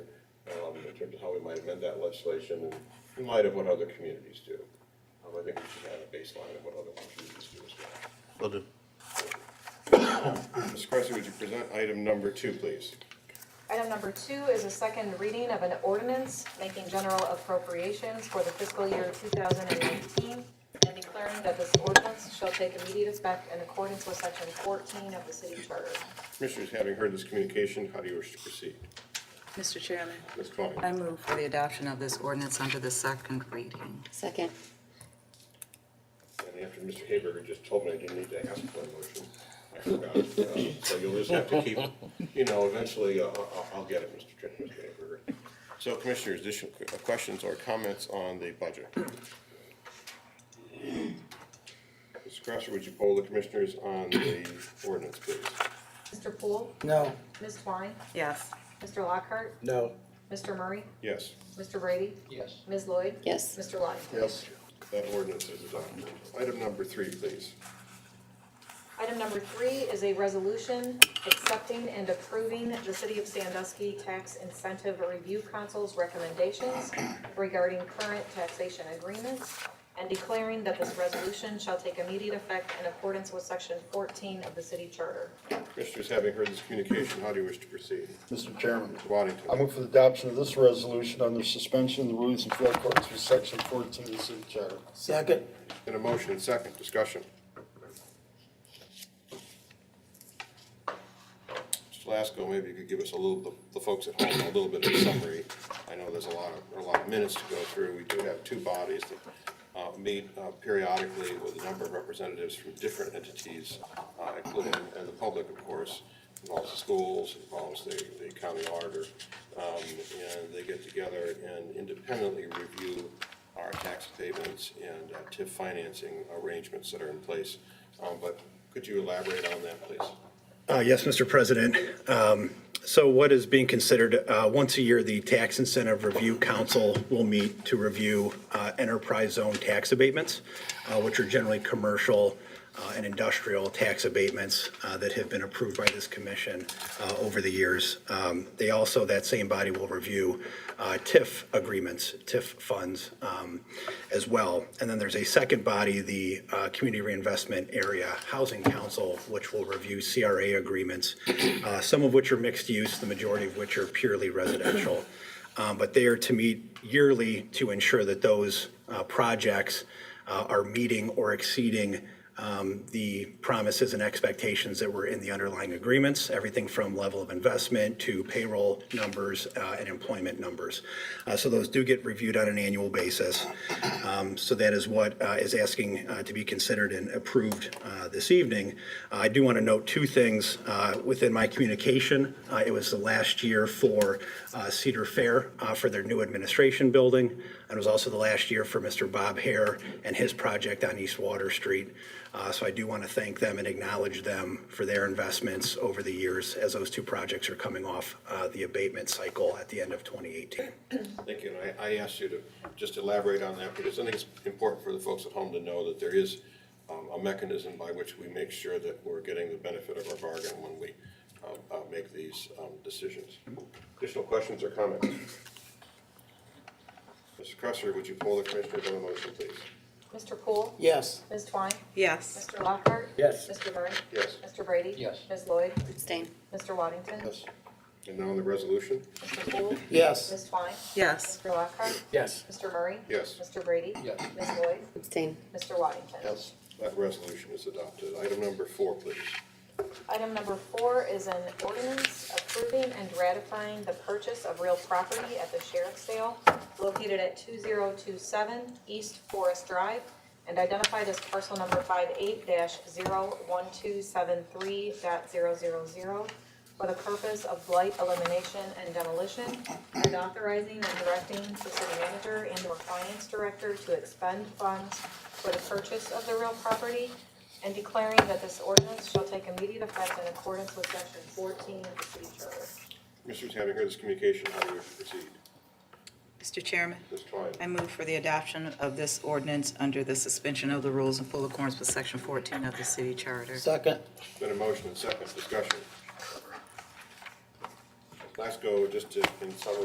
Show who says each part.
Speaker 1: um, terms of how we might amend that legislation in light of what other communities do. Um, I think we should have a baseline of what other communities do as well.
Speaker 2: Will do.
Speaker 1: Ms. Kresge, would you present item number two, please?
Speaker 3: Item number two is a second reading of an ordinance making general appropriations for the fiscal year 2019 and declaring that this ordinance shall take immediate effect in accordance with section 14 of the city charter.
Speaker 1: Commissioners, having heard this communication, how do you wish to proceed?
Speaker 4: Mr. Chairman,
Speaker 1: Ms. Klein?
Speaker 4: I move for the adoption of this ordinance under the second reading.
Speaker 5: Second.
Speaker 1: And after Mr. Haberger just told me I didn't need to ask for a motion, I forgot. Uh, So you'll just have to keep, you know, eventually, uh, I'll, I'll get it, Mr. Tr- Mr. Haberger. So commissioners, additional que- uh, questions or comments on the budget? Ms. Crosser, would you poll the commissioners on the ordinance, please?
Speaker 3: Mr. Poole?
Speaker 6: No.
Speaker 3: Ms. Twine?
Speaker 4: Yes.
Speaker 3: Mr. Lockhart?
Speaker 6: No.
Speaker 3: Mr. Murray?
Speaker 1: Yes,
Speaker 3: Mr. Brady?
Speaker 6: Yes.
Speaker 3: Ms. Lloyd?
Speaker 5: Yes.
Speaker 3: Mr. Lyon?
Speaker 6: Yes.
Speaker 1: that ordinance is adopted. Item number three, please.
Speaker 3: Item number three is a resolution accepting and approving the City of Sandusky Tax Incentive Review Council's recommendations regarding current taxation agreements and declaring that this resolution shall take immediate effect in accordance with section fourteen of the city charter.
Speaker 1: Commissioners, having heard this communication, how do you wish to proceed?
Speaker 7: Mr. Chairman,
Speaker 1: Mr. Waddington?
Speaker 7: I move for the adoption of this resolution under suspension of the rules in full accordance with section fourteen of the city charter.
Speaker 6: Second?
Speaker 1: In a motion, second, discussion. Mr. Lasko, maybe you could give us a little, the- the folks at home, a little bit of a summary. I know there's a lot of, there are a lot of minutes to go through. We do have two bodies that uh, meet uh, periodically with a number of representatives from different entities, uh, including, and the public, of course, involves the schools, involves the the county auditor. Um, And they get together and independently review our tax payments and uh, TIF financing arrangements that are in place. Um, But could you elaborate on that, please?
Speaker 8: Uh, Yes, Mr. President. Um, So what is being considered, uh, once a year, the Tax Incentive Review Council will meet to review uh, enterprise zone tax abatements, uh, which are generally commercial uh, and industrial tax abatements uh, that have been approved by this commission uh, over the years. Um, They also, that same body will review uh, TIF agreements, TIF funds um, as well. And then there's a second body, the uh, Community Reinvestment Area Housing Council, which will review CRA agreements, uh, some of which are mixed use, the majority of which are purely residential. Um, But they are to meet yearly to ensure that those uh, projects uh, are meeting or exceeding um, the promises and expectations that were in the underlying agreements, everything from level of investment to payroll numbers uh, and employment numbers. Uh, So those do get reviewed on an annual basis. Um, So that is what uh, is asking uh, to be considered and approved uh, this evening. Uh, I do want to note two things uh, within my communication. Uh, It was the last year for uh, Cedar Fair uh, for their new administration building. And it was also the last year for Mr. Bob Hare and his project on East Water Street. Uh, So I do want to thank them and acknowledge them for their investments over the years as those two projects are coming off uh, the abatement cycle at the end of 2018.
Speaker 1: Thank you. And I, I asked you to just elaborate on that because I think it's important for the folks at home to know that there is um, a mechanism by which we make sure that we're getting the benefit of our bargain when we um, uh, make these um, decisions. Additional questions or comments? Mr. Cresser, would you poll the commissioners on the motion, please?
Speaker 3: Mr. Poole?
Speaker 6: Yes.
Speaker 3: Ms. Twine?
Speaker 4: Yes.
Speaker 3: Mr. Lockhart?
Speaker 6: Yes.
Speaker 3: Mr. Murray?
Speaker 1: Yes.
Speaker 3: Mr. Brady?
Speaker 6: Yes.
Speaker 3: Ms. Lloyd?
Speaker 5: Abstain.
Speaker 3: Mr. Waddington?
Speaker 7: Yes.
Speaker 1: And now on the resolution?
Speaker 3: Mr. Poole?
Speaker 6: Yes.
Speaker 3: Ms. Twine?
Speaker 4: Yes.
Speaker 3: Mr. Lockhart?
Speaker 6: Yes.
Speaker 3: Mr. Murray?
Speaker 1: Yes.
Speaker 3: Mr. Brady?
Speaker 6: Yes.
Speaker 3: Ms. Lloyd?
Speaker 5: Abstain.
Speaker 3: Mr. Waddington?
Speaker 7: Yes.
Speaker 1: That resolution is adopted. Item number four, please.
Speaker 3: Item number four is an ordinance approving and ratifying the purchase of real property at the sheriff's sale located at two zero two seven East Forest Drive and identified as parcel number five eight dash zero one two seven three dot zero zero zero for the purpose of blight elimination and demolition, and authorizing and directing the city manager and or finance director to expend funds for the purchase of the real property, and declaring that this ordinance shall take immediate effect in accordance with section fourteen of the city charter.
Speaker 1: Commissioners, having heard this communication, how do you wish to proceed?
Speaker 4: Mr. Chairman,
Speaker 1: Ms. Twine?
Speaker 4: I move for the adoption of this ordinance under the suspension of the rules in full accordance with section 14 of the city charter.
Speaker 6: Second?
Speaker 1: Been a motion and second discussion. Let's go just to, in summary,